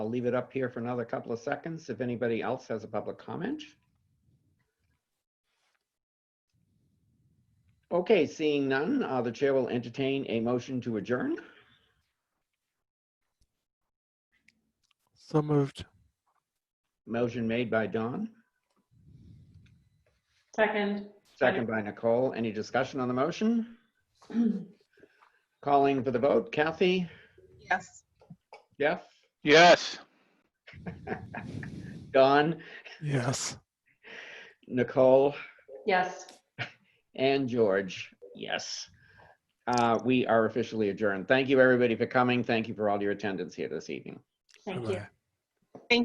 I'll leave it up here for another couple of seconds if anybody else has a public comment. Okay, seeing none, uh, the chair will entertain a motion to adjourn. So moved. Motion made by Don, Second. second by Nicole. Any discussion on the motion? Calling for the vote, Kathy, Yes. Jeff, Yes. Don, Yes. Nicole, Yes. and George. Yes. Uh, We are officially adjourned. Thank you, everybody, for coming. Thank you for all your attendance here this evening. Thank you. Bye-bye.